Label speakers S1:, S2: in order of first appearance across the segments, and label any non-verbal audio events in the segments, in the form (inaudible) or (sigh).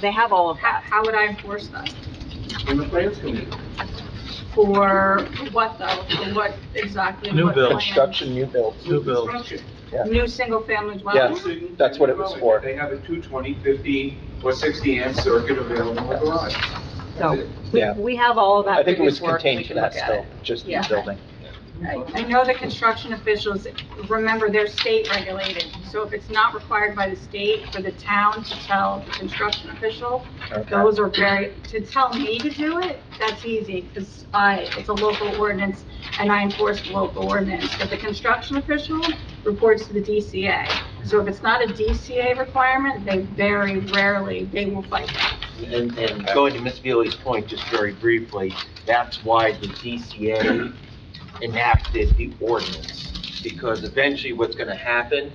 S1: They have all of
S2: How,
S1: that.
S2: how would I enforce that?
S3: in the plans committee.
S2: For what though? For what exactly?
S4: New
S2: What
S4: build.
S2: plan?
S5: Construction, new build.
S4: New build.
S3: Construction.
S2: New single-family
S5: Yes.
S2: dwelling?
S5: that's what it was for.
S3: They have a 220, 50, or 60 amp circuit available in the garage. That's
S1: So
S3: it.
S1: we,
S5: Yeah.
S1: we have all of that.
S5: I think it was
S1: previous work. We
S5: contained to
S1: can
S5: that
S1: look at it.
S5: scope, just the
S2: Yeah.
S5: building.
S2: I I know the construction officials, remember, they're state regulated, so if it's not required by the state for the town to tell the construction official,
S5: Okay.
S2: those are very, to tell me to do it, that's easy, because I, it's a local ordinance, and I enforce the local ordinance. But the construction official reports to the DCA. So if it's not a DCA requirement, they very rarely, they will fight that.
S6: And, and going to Ms. Feely's point, just very briefly, that's why the DCA enacted the ordinance. Because eventually what's gonna happen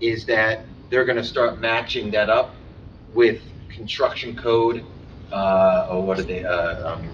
S6: is that they're gonna start matching that up with construction code, uh, oh, what are they, uh, um,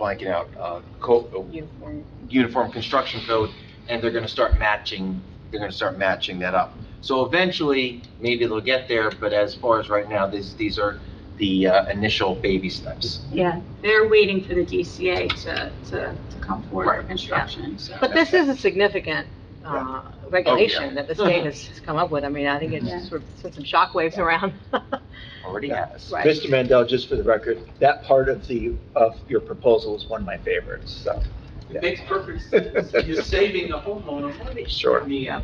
S6: blanking out, uh, co- oh,
S1: Uniform.
S6: uniform construction code, and they're gonna start matching, they're gonna start matching that up. So eventually, maybe they'll get there, but as far as right now, these, these are the uh, initial baby steps.
S1: Yeah,
S2: They're waiting for the DCA to, to, to come forward with construction, so.
S1: but this is a significant, uh,
S5: Oh,
S1: regulation that the state has has come up with. I mean, I think
S2: Yeah.
S1: it's sort of sent some shockwaves around. (laughs)
S6: Already has.
S1: Right.
S5: Mr. Mandel, just for the record, that part of the, of your proposal is one of my favorites, so.
S3: It makes perfect sense.
S5: (laughs)
S3: You're saving the homeowner money.
S5: Sure.
S3: I mean, uh,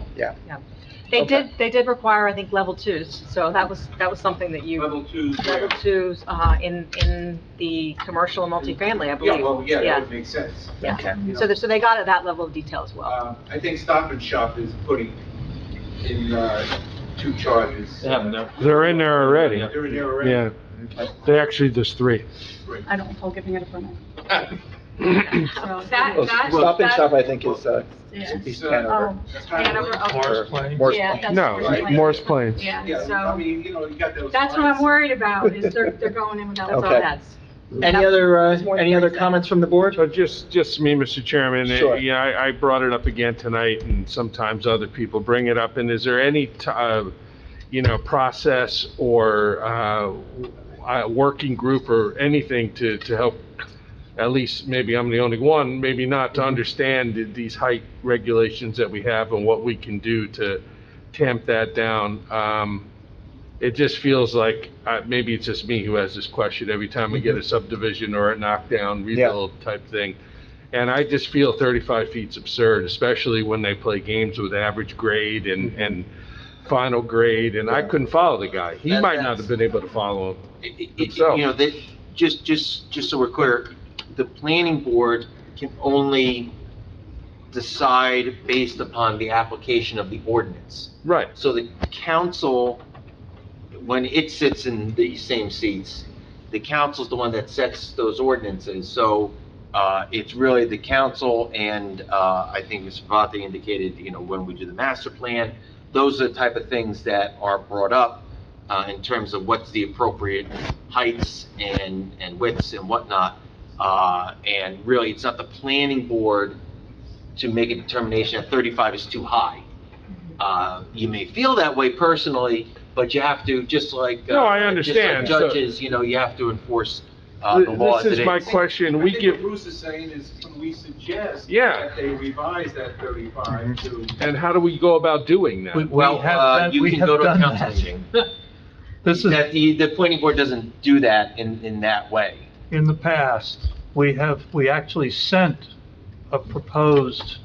S1: They
S5: Okay.
S1: did, they did require, I think, level twos, so that was, that was something that you,
S3: level two.
S1: level twos, uh, in, in the commercial and multifamily, I
S3: Yeah,
S1: believe.
S3: well, yeah,
S1: Yeah.
S3: that would make sense.
S1: Yeah.
S6: Okay.
S3: you know.
S1: So, they- so they got at that level of detail as well.
S3: Uh, I think Stop and Shop is putting in, uh, two charges.
S4: They're in there already.
S3: They're in there already.
S4: Yeah, they actually, there's three.
S2: I don't hold giving it a permit. So that,
S5: Oh,
S2: that.
S5: Stop and
S2: that-
S5: Shop, I think, is, uh,
S2: Yeah.
S5: East
S3: Uh,
S5: Hanover.
S3: That's kind of-
S2: Hanover, oh,
S5: or
S4: Plains?
S5: Morris
S2: Yeah, that's
S5: Plains.
S4: No,
S2: right.
S4: Morris Plains.
S2: Yeah,
S3: Yeah, I
S2: so
S3: mean, you know, you got those.
S2: that's what I'm
S3: lines.
S2: worried about, is they're, they're going in without.
S1: That's all
S5: Okay.
S1: that's.
S5: Any other, uh,
S1: It's more than
S5: any other
S1: 30 seconds.
S5: comments from the board?
S4: So just, just me, Mr. Chairman, Uh,
S5: Sure.
S4: yeah, I, I brought it up again tonight, and sometimes other people bring it up, and is there any, t- uh, you know, process or, uh, uh, working group or anything to, to help, at least, maybe I'm the only one, maybe not, to understand th- these height regulations that we have and what we can do to tamp that down? Um, it just feels like, uh, maybe it's just me who has this question every time we get a subdivision or a knockdown,
S5: Yeah.
S4: rebuild type thing. And I just feel 35 feet's absurd, especially when they play games with average grade and, and final grade, and I
S5: Yeah.
S4: couldn't follow the guy. He
S6: That-
S4: might not
S6: that's-
S4: have been able to follow him.
S6: It- it- it-
S4: Itself.
S6: You know, that, just, just, just so we're clear, the planning board can only decide based upon the application of the ordinance.
S4: Right,
S6: So the council, when it sits in the same seats, the council's the one that sets those ordinances. So, uh, it's really the council and, uh, I think Mr. Vate indicated, you know, when we do the master plan, those are the type of things that are brought up, uh, in terms of what's the appropriate heights and, and widths and whatnot. Uh, and really, it's not the planning board to make a determination that thirty-five is too high. Uh, you may feel that way personally, but you have to, just like. uh,
S4: No, I
S6: just like
S4: understand, so-
S6: Judges, you know, you have to enforce, uh, the law
S4: this
S6: as it
S4: is my
S6: is.
S4: question,
S3: I
S4: we
S3: think
S4: give,
S3: what Bruce is saying is, can we suggest?
S4: Yeah.
S3: That they revise that thirty-five to.
S4: and how do we go about doing that?
S6: Well, uh, you can go to a council meeting.
S7: This is,
S6: That the, the planning board doesn't do that in, in that way.
S7: in the past, we have, we actually sent a proposed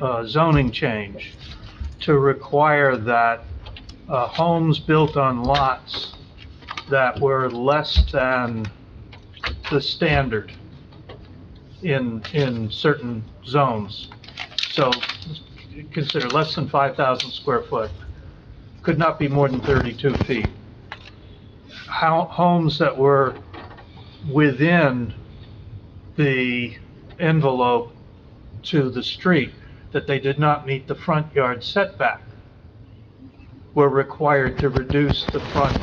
S7: uh, zoning change to require that uh, homes built on lots that were less than the standard in, in certain zones. So consider less than 5,000 square foot, could not be more than 32 feet. How, homes that were within the envelope to the street, that they did not meet the front yard setback, were required to reduce the front,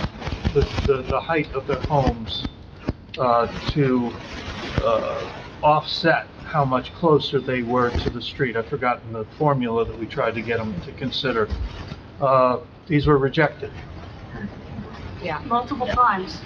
S7: the, the, the height of their homes, uh, to, uh, offset how much closer they were to the street. I've forgotten the formula that we tried to get them to consider. Uh, these were rejected.
S1: Yeah.
S2: multiple times.